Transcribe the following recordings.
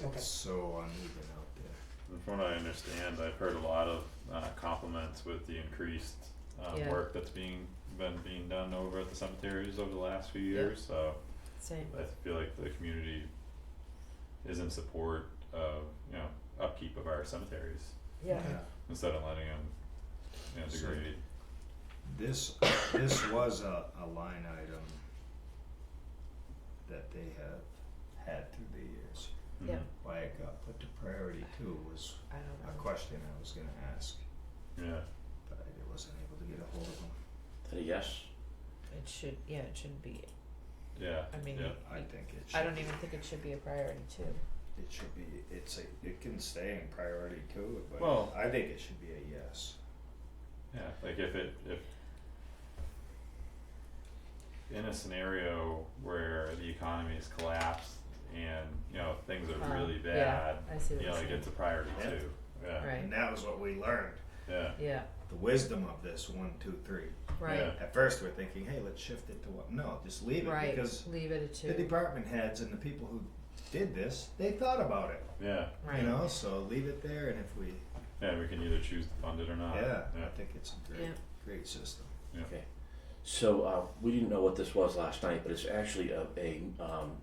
Okay. it's so uneven out there. From what I understand, I've heard a lot of uh compliments with the increased um Yeah. work that's being been being done over at the cemeteries over the last few Yeah. years, so Same. I feel like the community is in support of, you know, upkeep of our cemeteries Yeah. instead of letting them, you know, So- degrade. This, this was a, a line item that they have had through the years. Yeah. Mhm. Why it got put to priority two was I don't a know. question I was gonna ask, Mm-hmm. Yeah, but I wasn't able to get a hold of them, Is that a yes? It should. Yeah. It shouldn't be. yeah, I mean, yeah, I think it should. I don't even think it should be a priority too. It should be, it's a, it can stay in priority two, but Well- I think it should be a yes. yeah, like if it, if in a scenario where the economy is collapsed and, you know, things Um, are really yeah, bad, I see what you know, you're like saying. it's a priority Yeah. too, yeah, Right. And that was what we learned, yeah, Yeah. the wisdom of this, one, two, three. Right. Yeah. At first, we're thinking, hey, let's shift it to what, no, just leave it, Right. because Leave it at two. the department heads and the people who did this, they thought about it, yeah, right. you know, so leave it there, and if we, yeah, we can either choose to fund it or not, yeah, yeah, I think it's a great, Yeah. great system. Yeah. Okay. So uh, we didn't know what this was last night, but it's actually a, a um,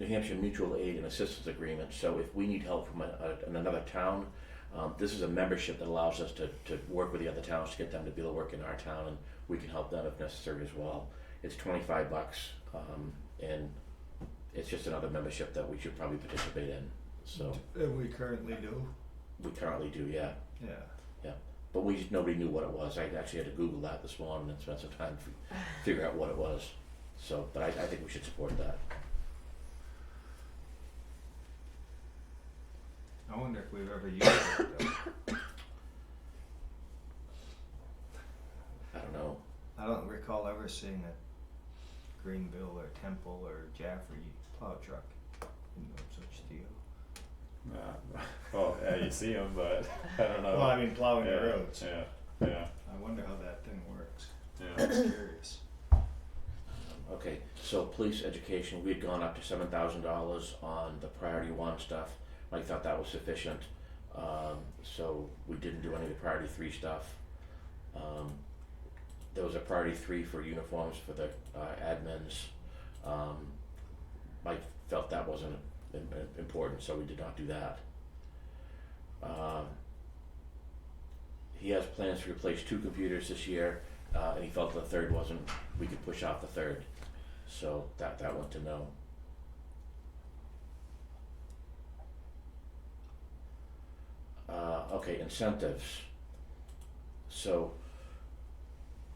New Hampshire mutual aid and assistance agreement. So if we need help from a, a, in another town, um, this is a membership that allows us to, to work with the other towns to get them to be able to work in our town, and we can help them if necessary as well. It's twenty five bucks, um, and it's just another membership that we should probably participate in. So And we currently do, we currently do, yeah. yeah, But we nobody knew what it was. I actually had to Google that this morning and spent some time to figure out what it was. So, but I, I think we should support that. I wonder if we've ever used it, though. I don't know. I don't recall ever seeing a Greenville or Temple or Jaffrey plow truck, you know, such deal. Uh, well, yeah, you see them, but I don't know. Well, I mean, plowing Uh, yeah, the roads, Yeah, yeah, I wonder how that thing works, yeah. I'm curious. Okay, so police education, we had gone up to seven thousand dollars on the priority one stuff. I thought that was sufficient, um, so we didn't do any of the priority three stuff. Um, there was a priority three for uniforms for the uh, admins. Um, Mike felt that wasn't im- im- important, so we did not do that. Um, he has plans to replace two computers this year, uh, and he felt the third wasn't. We could push out the third, so that that went to no. Uh, okay, incentives. So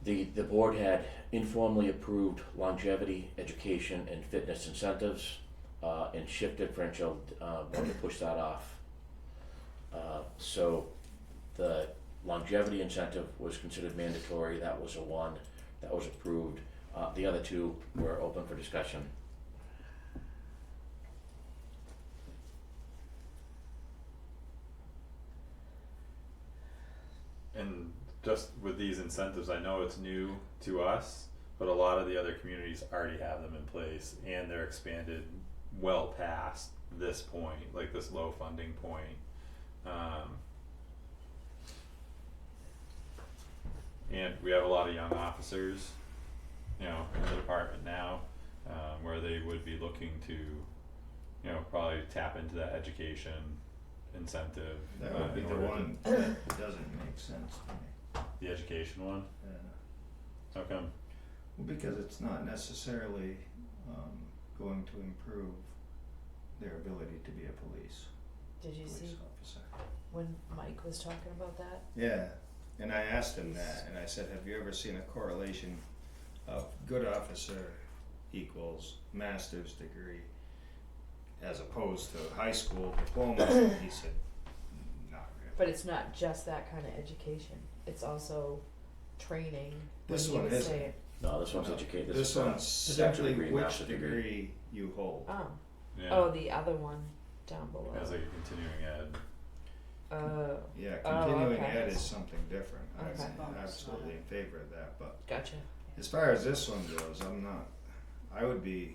the the board had informally approved longevity, education, and fitness incentives, uh, and shift differential. Uh, wanted to push that off. Uh, so the longevity incentive was considered mandatory. That was a one. That was approved. Uh, the other two were open for discussion. And just with these incentives, I know it's new to us, but a lot of the other communities already have them in place and they're expanded well past this point, like this low funding point. Um, and we have a lot of young officers, you know, in the department now, um, where they would be looking to, you know, probably tap into that education incentive. That uh, would be in the order to- one that doesn't make sense to me. The education one? Yeah. How come? Well, because it's not necessarily um, going to improve their ability to be a police, Did you police see officer. when Mike was talking about that? Yeah, and I asked him that, and I said, "Have you ever seen a correlation of good officer equals master's degree as opposed to high school diploma?" he said, "Not really." But it's not just that kind of education. It's also training. when This he one was isn't. saying- No, this one's No, educate. This, This is, uh, one's bachelor simply degree, which master degree. degree you hold. Oh. Yeah. Oh, the other one down below. As like a continuing ed. oh, Yeah, Oh, continuing okay. ed is something different. Okay. I'm absolutely in favor of that, but gotcha. as far as this one goes, I'm not. I would be